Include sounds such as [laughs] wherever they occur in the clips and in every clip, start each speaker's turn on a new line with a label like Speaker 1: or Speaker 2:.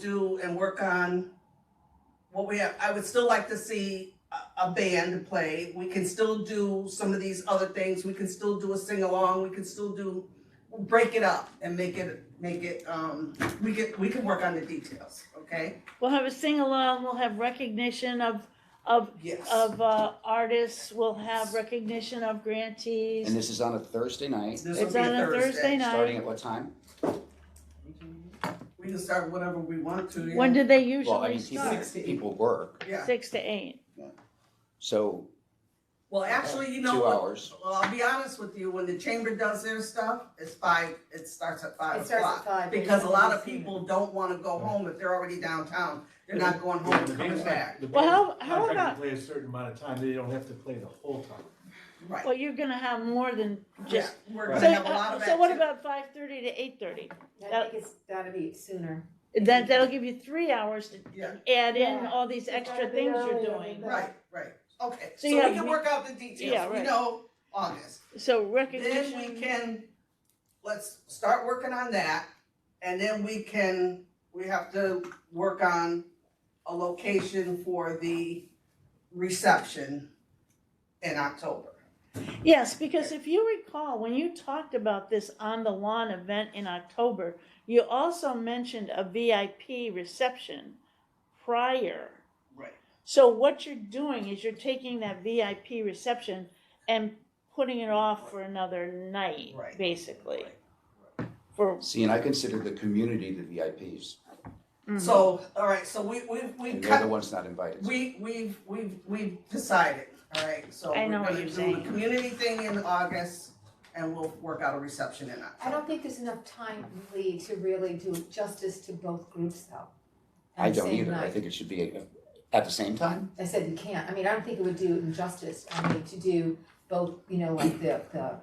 Speaker 1: do and work on what we have. I would still like to see a, a band play. We can still do some of these other things. We can still do a sing along. We can still do break it up and make it make it. Um, we can we can work on the details. Okay.
Speaker 2: We'll have a sing along, we'll have recognition of, of,
Speaker 1: Yes.
Speaker 2: of, uh, artists, we'll have recognition of
Speaker 3: And
Speaker 2: grantees.
Speaker 3: this is on a Thursday night,
Speaker 1: this
Speaker 2: It's on a Thursday
Speaker 3: starting
Speaker 2: night.
Speaker 3: at what time?
Speaker 1: We can start whatever we want to. yeah.
Speaker 2: When do they
Speaker 3: Well, I
Speaker 2: usually
Speaker 3: mean, people,
Speaker 2: start?
Speaker 1: Sixteen.
Speaker 3: people work,
Speaker 1: yeah.
Speaker 2: Six to eight.
Speaker 3: so
Speaker 1: Well, actually, you know
Speaker 3: two
Speaker 1: what?
Speaker 3: hours.
Speaker 1: Well, I'll be honest with you, when the chamber does their stuff, it's five, it starts at five
Speaker 4: It starts at
Speaker 1: o'clock.
Speaker 4: five.
Speaker 1: Because a lot of people don't wanna go home if they're already downtown, they're not going home and coming back,
Speaker 5: The band's
Speaker 2: Well, how- how
Speaker 5: contracted to
Speaker 2: about-
Speaker 5: Play a certain amount of time, they don't have to play the whole time.
Speaker 1: right?
Speaker 2: Well, you're gonna have more than
Speaker 1: Yeah,
Speaker 2: just,
Speaker 1: we're
Speaker 2: so,
Speaker 1: gonna have a lot of
Speaker 2: uh, so what
Speaker 1: activity.
Speaker 2: about five thirty to eight thirty?
Speaker 4: I think it's gotta be sooner.
Speaker 2: That, that'll give you three hours to
Speaker 1: Yeah,
Speaker 2: add in
Speaker 4: Yeah.
Speaker 2: all these
Speaker 4: It's gotta
Speaker 2: extra
Speaker 4: be
Speaker 2: things you're
Speaker 4: earlier than
Speaker 2: doing.
Speaker 4: that.
Speaker 1: right, right, okay, so
Speaker 2: So you
Speaker 1: we
Speaker 2: have
Speaker 1: can
Speaker 2: me-
Speaker 1: work out the
Speaker 2: Yeah,
Speaker 1: details, we
Speaker 2: right.
Speaker 1: know August.
Speaker 2: So
Speaker 1: Then we
Speaker 2: recognition,
Speaker 1: can, let's start working on that, and then we can, we have to work on a location for the reception in October.
Speaker 2: yes, because if you recall, when you talked about this on the lawn event in October, you also mentioned a VIP reception prior.
Speaker 1: Right.
Speaker 2: So what you're doing is you're taking that VIP reception and putting it off for another night,
Speaker 1: Right.
Speaker 2: basically.
Speaker 1: Right.
Speaker 2: For,
Speaker 3: See, and I consider the community the VIPs,
Speaker 1: So, all right, so we, we, we
Speaker 3: and they're the
Speaker 1: cut,
Speaker 3: ones not invited.
Speaker 1: we, we've, we've, we've decided, all right? So
Speaker 2: I
Speaker 1: we're
Speaker 2: know what
Speaker 1: gonna
Speaker 2: you're
Speaker 1: do
Speaker 2: saying.
Speaker 1: the community thing in August, and we'll work out a reception in October.
Speaker 4: I don't think there's enough time, Lee, to really do justice to both groups though. on
Speaker 3: I
Speaker 4: the
Speaker 3: don't
Speaker 4: same
Speaker 3: either, I
Speaker 4: night.
Speaker 3: think it should be uh, at the same time.
Speaker 4: I said you can't, I mean, I don't think it would do injustice, I mean, to do both, you know, like the, the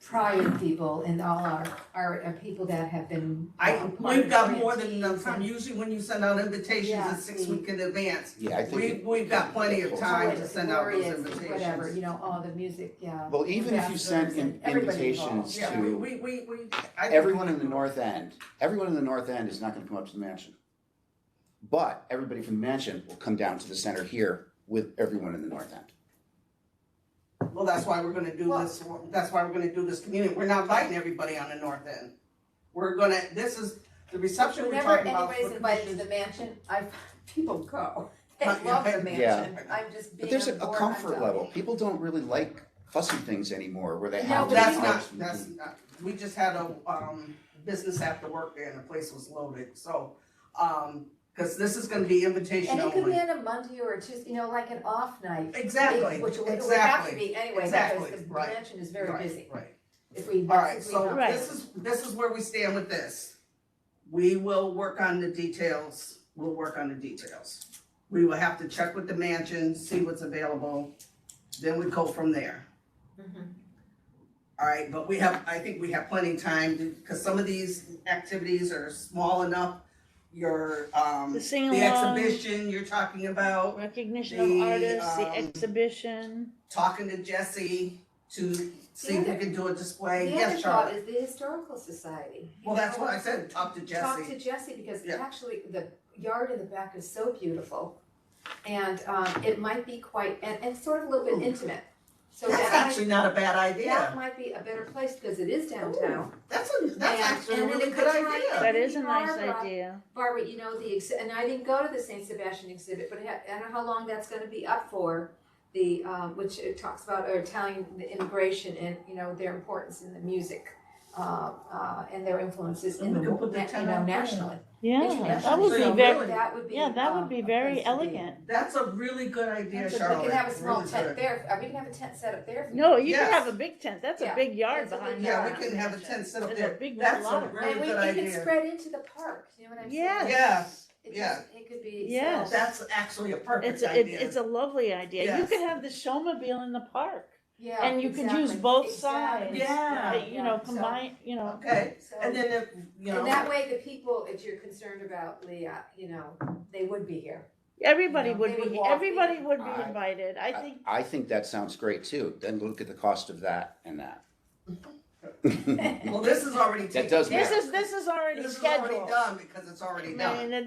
Speaker 4: prior people and all our, our, our people that have been.
Speaker 1: I,
Speaker 4: um, part
Speaker 1: we've
Speaker 4: of
Speaker 1: got
Speaker 4: grants.
Speaker 1: more than enough time, usually when you send out invitations,
Speaker 4: Yeah.
Speaker 1: it's six week in advance.
Speaker 3: Yeah, I think.
Speaker 1: We,
Speaker 3: it-
Speaker 1: we've got plenty of time to send out those
Speaker 4: Glorious, Whatever,
Speaker 1: invitations.
Speaker 4: you know, all the music, yeah.
Speaker 3: Well, even if you sent in-
Speaker 4: Ambassadors and everybody
Speaker 3: invitations
Speaker 4: involved.
Speaker 1: Yeah, we,
Speaker 3: to
Speaker 1: we, we, we- I think-
Speaker 3: everyone in the north end, everyone in the north end is not gonna come up to the mansion. But everybody from the mansion will come down to the center here with everyone in the north end.
Speaker 1: Well, that's why we're gonna do this, that's why we're gonna do this community, we're not inviting everybody on the north end. We're gonna, this is, the reception we're
Speaker 4: Whenever
Speaker 1: talking about.
Speaker 4: anybody's
Speaker 1: for
Speaker 4: invited to
Speaker 1: commissioners-
Speaker 4: the mansion, I, [laughs] people go. They
Speaker 1: Uh, yeah,
Speaker 4: love the
Speaker 1: I-
Speaker 3: yeah.
Speaker 4: mansion, I'm just
Speaker 3: But
Speaker 4: being
Speaker 3: there's
Speaker 4: a
Speaker 3: a, a
Speaker 4: bore
Speaker 3: comfort
Speaker 4: myself.
Speaker 3: level. People don't really like fussy things anymore where they
Speaker 4: No,
Speaker 3: have
Speaker 4: but
Speaker 3: to.
Speaker 1: That's
Speaker 4: we-
Speaker 1: not, that's not, we just had a, um, business after work there and the place was loaded, so, um, cause this is gonna be invitation
Speaker 4: And it could be
Speaker 1: only.
Speaker 4: on a Monday or a Tuesday, you know, like an off night.
Speaker 1: Exactly,
Speaker 4: Which it would- it would have to
Speaker 1: exactly,
Speaker 4: be anyway,
Speaker 1: exactly,
Speaker 4: because the
Speaker 1: right,
Speaker 4: mansion is very
Speaker 1: right,
Speaker 4: busy.
Speaker 1: Right.
Speaker 4: If we,
Speaker 1: All right,
Speaker 4: if we.
Speaker 1: so
Speaker 4: have-
Speaker 2: Right.
Speaker 1: this is, this is where we stand with this. We will work on the details, we'll work on the details. We will have to check with the mansion, see what's available, then we go from there.
Speaker 4: Mhm.
Speaker 1: All right, but we have, I think we have plenty of time, because some of these activities are small enough. Your, um,
Speaker 2: the
Speaker 1: the
Speaker 2: sing along,
Speaker 1: exhibition you're talking about,
Speaker 2: recognition of
Speaker 1: the,
Speaker 2: artists, the
Speaker 1: um,
Speaker 2: exhibition.
Speaker 1: talking to Jesse to see if we can do a display.
Speaker 4: The other
Speaker 1: Yes,
Speaker 4: thought
Speaker 1: Charlotte.
Speaker 4: is the historical society.
Speaker 1: Well, that's what I said, talk to
Speaker 4: Talk
Speaker 1: Jesse.
Speaker 4: to Jesse, because
Speaker 1: Yeah.
Speaker 4: actually, the yard in the back is so beautiful. And, um, it might be quite, and, and sort of a little bit intimate. So
Speaker 1: That's
Speaker 4: that,
Speaker 1: actually not a bad
Speaker 4: might-
Speaker 1: idea.
Speaker 4: that might be a better place, because it is downtown.
Speaker 1: That's a, that's
Speaker 4: And-
Speaker 1: actually a
Speaker 4: and then
Speaker 1: really
Speaker 4: it
Speaker 1: good
Speaker 4: could tie
Speaker 1: idea.
Speaker 4: in.
Speaker 2: That is a nice
Speaker 4: Barbara.
Speaker 2: idea.
Speaker 4: Barbara, you know, the, ex- and I didn't go to the St. Sebastian exhibit, but I I don't know how long that's gonna be up for. The, um, which it talks about Italian immigration and, you know, their importance in the music, uh, uh, and their influences in
Speaker 1: And
Speaker 4: the,
Speaker 1: we could
Speaker 4: wo-
Speaker 1: put the
Speaker 4: na- you know,
Speaker 1: Italian
Speaker 4: nationally.
Speaker 2: Yeah, that would be
Speaker 1: So-
Speaker 2: very,
Speaker 4: That would be,
Speaker 2: yeah, that
Speaker 4: um,
Speaker 2: would be
Speaker 4: a
Speaker 2: very
Speaker 4: place to be.
Speaker 2: elegant.
Speaker 1: That's a really good idea,
Speaker 4: We
Speaker 1: Charlotte.
Speaker 4: could have a small
Speaker 1: Really
Speaker 4: tent
Speaker 1: good.
Speaker 4: there, uh, we can have a tent set up there. if we
Speaker 2: No,
Speaker 4: want.
Speaker 2: you can
Speaker 1: Yes.
Speaker 2: have a big tent, that's a
Speaker 4: Yeah,
Speaker 2: big yard
Speaker 4: that's a big
Speaker 2: behind
Speaker 1: Yeah,
Speaker 2: that.
Speaker 1: we can have a tent set up
Speaker 2: That's a
Speaker 1: there.
Speaker 2: big
Speaker 1: That's a
Speaker 2: lot.
Speaker 1: really good
Speaker 4: And we, it can
Speaker 1: idea.
Speaker 4: spread into the park, you know what I'm saying?
Speaker 2: Yes,
Speaker 4: It
Speaker 1: yeah.
Speaker 4: just- It could be.
Speaker 2: Yes.
Speaker 4: so-
Speaker 1: That's actually a perfect
Speaker 2: it's, a- it's,
Speaker 1: idea.
Speaker 2: it's a lovely idea. You
Speaker 1: Yes.
Speaker 2: could have the showmobile in the park,
Speaker 4: Yeah.
Speaker 2: and you could use
Speaker 4: exactly,
Speaker 2: both sides.
Speaker 1: Oh,
Speaker 4: exactly.
Speaker 1: Yeah.
Speaker 2: that, You know,
Speaker 4: Yeah, so-
Speaker 2: combine, you know,
Speaker 1: Okay,
Speaker 4: So-
Speaker 1: and then if, you
Speaker 4: And
Speaker 1: know,
Speaker 4: that way, the people that you're concerned about, Leah, you know, they would be here. [laughs]
Speaker 2: everybody
Speaker 4: Yeah,
Speaker 2: would
Speaker 4: they would
Speaker 2: be,
Speaker 4: walk
Speaker 2: everybody
Speaker 4: in.
Speaker 2: would be
Speaker 3: I-
Speaker 2: invited,
Speaker 1: Uh,
Speaker 2: I think.
Speaker 3: I think that sounds great too. Then look at the cost of that and that.
Speaker 1: well, this is already taken.
Speaker 2: [laughs]
Speaker 3: does
Speaker 1: care
Speaker 2: This
Speaker 3: matter.
Speaker 1: of.
Speaker 2: is, this is already
Speaker 1: This is already
Speaker 2: scheduled.
Speaker 1: done because it's already done.
Speaker 2: And